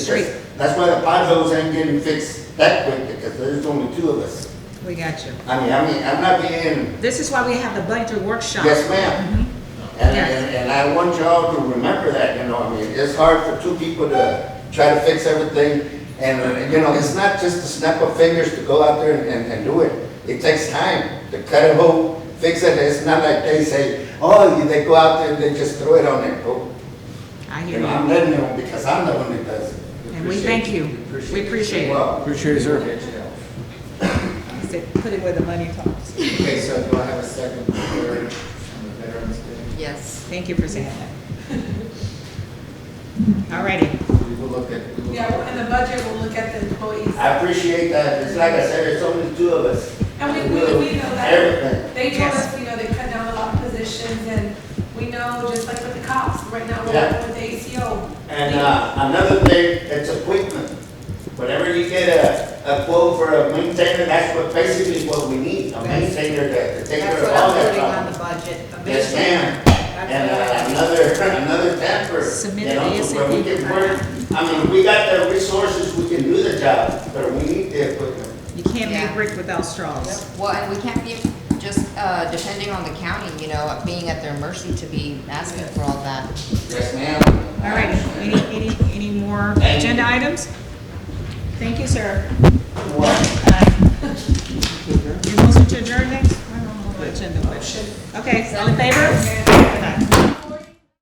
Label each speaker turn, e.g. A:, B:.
A: Street.
B: That's why the potholes ain't getting fixed that quick, because there's only two of us.
A: We got you.
B: I mean, I mean, I'm not being,
A: This is why we have the budget workshop.
B: yes ma'am. And,
A: Yeah.
B: and, and I want y'all to remember that, you know, I mean, it's hard for two people to try to fix everything. And, uh, you know, it's not just a snap of fingers to go out there and- and, and do it. It takes time to cut a hole, fix it. It's not like they say, oh, they go out there and they just throw it Oh, on their hole.
A: I
B: You
A: hear
B: know, I'm
A: you.
B: letting them because I'm the one that does it.
A: And we thank you. We appreciate it.
B: Well,
C: Appreciate it, sir.
A: He said, Put it where the money talks.
D: Okay, so do I have a second for third on the Veterans Day?
E: Yes.
A: Thank you for saying that. All righty.
D: We will look at, we will.
F: Yeah, well, in the budget, we'll look at the employees.
B: I appreciate that. It's like I said, it's only two of us.
F: And we, we, we know that.
B: Everything.
F: They told us, you know, they cut down a lot of positions and we know, just like with the cops, right now, we're
B: Yeah.
F: working with the ACO.
B: And, uh, another thing, it's equipment. Whenever you get a, a quote for a maintainer, that's what, basically what we need, a maintainer to, to take care
E: That's
B: of
E: what
B: all
E: I'm
B: that
E: putting
B: problem.
E: on the budget. a
B: Yes, ma'am.
E: That's
B: And,
E: what
B: uh,
E: I-
B: another, another temper,
A: Submit
B: you know,
A: the
B: so where we
A: ASAP.
B: can work. I mean, we got the resources, we can do the job, but we need the equipment.
A: You can't
E: Yeah.
A: make brick without straws.
E: Well, and we can't be just uh, depending on the county, you know, being at their mercy to be asking for all that.
B: Yes, ma'am.
A: All righty. Any, any, any more
B: Thank you.
A: agenda items? Thank you, sir. Uh,
B: What?
A: Your motion to adjourn next? I don't know what agenda, but, okay, all in favor? Aye.